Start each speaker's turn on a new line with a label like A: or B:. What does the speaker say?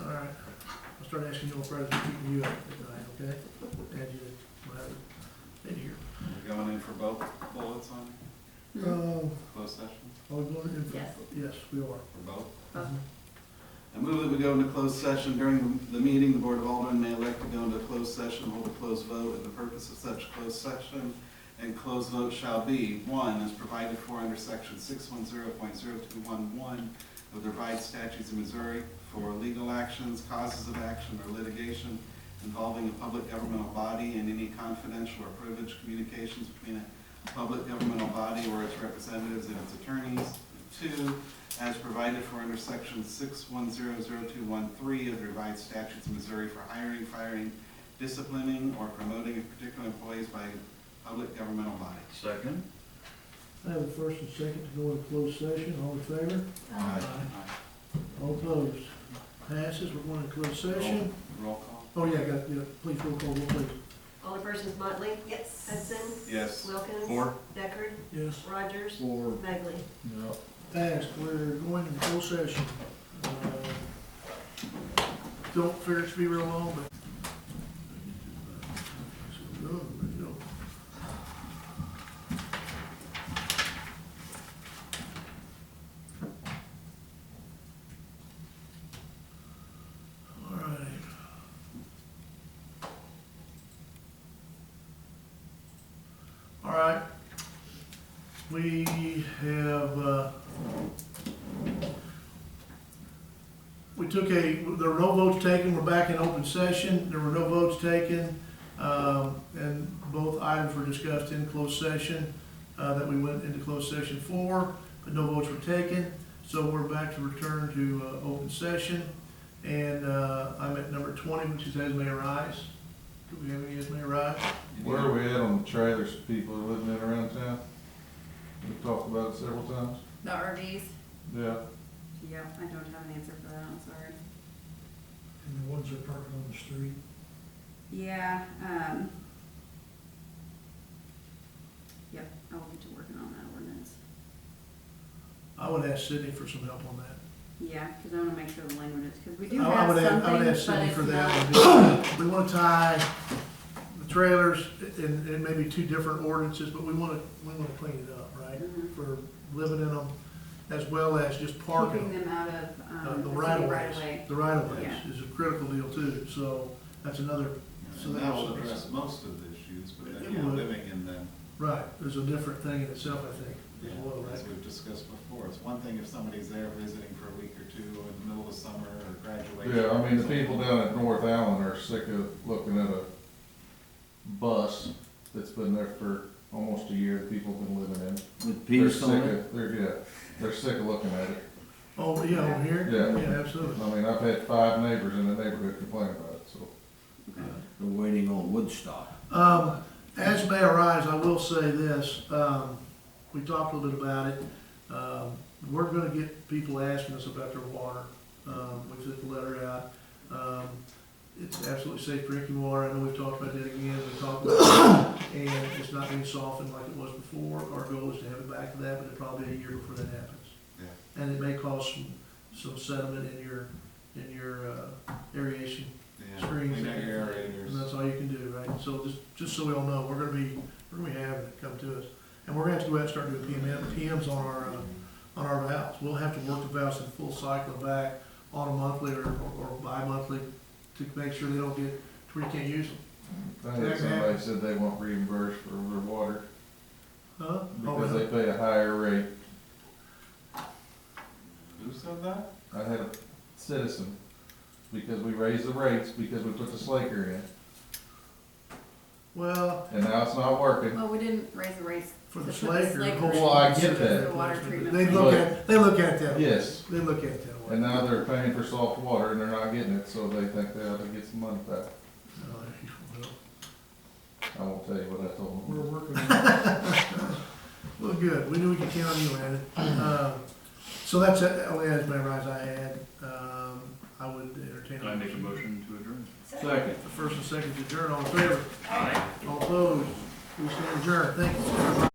A: start asking you all Friday, keeping you up at night, okay? Add you to my other, in here.
B: We're going in for both bullets on
C: Mm-hmm.
A: Uh,
B: closed session,
A: are we going in? for-
D: Yes.
A: Yes, we are.
B: for both?
D: Both.
B: I move that we go into closed session during the meeting, the Board of Aldermen may elect to go into closed session, hold a closed vote, and the purpose of such closed session and closed vote shall be, one, as provided for under section six one zero point zero two one one of the revised statutes of Missouri for legal actions, causes of action, or litigation involving a public governmental body and any confidential or privileged communications between a public governmental body or its representatives and its attorneys. Two, as provided for under section six one zero zero two one three of the revised statutes of Missouri for hiring, firing, disciplining, or promoting of particular employees by a public governmental body.
E: Second?
A: I have a first and second to go into closed session, all in favor?
D: Uh,
A: All opposed? Passes, we're going to closed session.
B: Roll- Roll call.
A: Oh, yeah, I got, yeah, please roll call, roll please.
D: All the persons Motley? Yes. Hudson?
B: Yes.
D: Wilkins?
E: Four?
D: Deckard?
A: Yes.
D: Rogers?
E: Four.
D: Magley?
E: No.
A: Passed, we're going into closed session. Uh, Don't figure it to be real long, but. So, go, go. All right. All right. We have, uh, we took a, there were no votes taken, we're back in open session, there were no votes taken. um, And both items were discussed in closed session, uh, that we went into closed session for, but no votes were taken. So we're back to return to uh, open session. And uh, I'm at number 20, which is as may arise. Do we have any as may arise?
F: Where are we at on the trailers, people are living in around town? We've talked about it several times.
C: The RVs?
F: Yeah,
C: Yeah, I don't have an answer for that, I'm sorry.
A: And the ones that are parking on the street.
C: Yeah, um. Yep, I will get to working on that ordinance.
A: I would ask Sydney for some help on that.
C: Yeah, cause I wanna make sure the language is, cause we do
A: I- I
C: have
A: would add- I would ask
C: something, but
A: Cindy
C: it's
A: for that
C: not.
A: one. We want to tie the trailers and, and maybe two different ordinances, but we want to, we want to clean it up, right?
C: Mhm.
A: For living in them as well as just parking
C: Keeping
A: them.
C: them out of,
A: Uh,
C: um,
A: The
C: the city right
A: right
C: of
A: of ways,
C: way.
A: the right of ways
C: Yeah.
A: is a critical deal too. So that's another, So
B: And that
A: that's-
B: will address most of the issues, but
A: It
B: then you're
A: would.
B: living in them,
A: right, there's a different thing in itself, I think, as well, right?
B: as we've discussed before. It's one thing if somebody's there visiting for a week or two in the middle of summer or graduation.
F: yeah, I mean, the
B: or
F: people
B: something.
F: down at North Allen are sick of looking at a bus that's been there for almost a year, that people have been living in.
E: With
F: They're
E: Peter's
F: sick
E: on it?
F: of. They're, yeah, they're sick of looking at it.
A: Oh, yeah, over here?
F: Yeah.
A: Yeah, absolutely.
F: I mean, I've had five neighbors in the neighborhood complain about it, so.
E: We're waiting on Woodstock.
A: Um, as may arise, I will say this, um, we talked a little bit about it. Um, we're gonna get people asking us about their water. Um, we took the letter out. Um, it's absolutely safe drinking water. I know we've talked about that again, we talked about it. And it's not being softened like it was before. Our goal is to have it back to that, but it probably be a year before that happens.
B: Yeah.
A: And it may cause some, some sediment in your, in your, uh, aeration
B: Yeah,
A: Screens
B: clean out
A: and-
B: your
A: and
B: aerators.
A: that's all you can do, right? So just, just so we all know, we're gonna be, we're gonna be having it come to us. And we're gonna have to go out and start doing PM, PMs on our, uh, on our valves. We'll have to work the valves in full cycle and back on a monthly or, or or bi-monthly to make sure they don't get, to where you can't use them.
F: I had somebody said they won't reimburse for their water
A: Huh? Oh,
F: because
A: really?
F: they pay a higher rate.
B: Who said that?
F: I had a citizen, because we raised the rates, because we put the slaker in,
A: Well,
F: and now it's not working.
C: Well, we didn't raise the rates.
A: for the
C: To put the
A: slake or.
C: slake
A: whole-
F: Well, I
C: in
F: get
C: for
F: that.
C: The water treatment.
A: They
C: plant.
A: look at, they look at that.
F: Yes,
A: They look at that. way.
F: and now they're paying for soft water and they're not getting it, so they think they ought to get some money back.
A: Oh, well,
F: I won't tell you what I told
A: We're
F: them.
A: working on it. Well, good, we knew we could count on you, Landon. Um, So that's, the only as my rise I had, um, I would entertain.
E: Can I make a motion to adjourn?
F: Second.
A: The first and second to adjourn, all in favor? All opposed? We stand adjourned, thank you.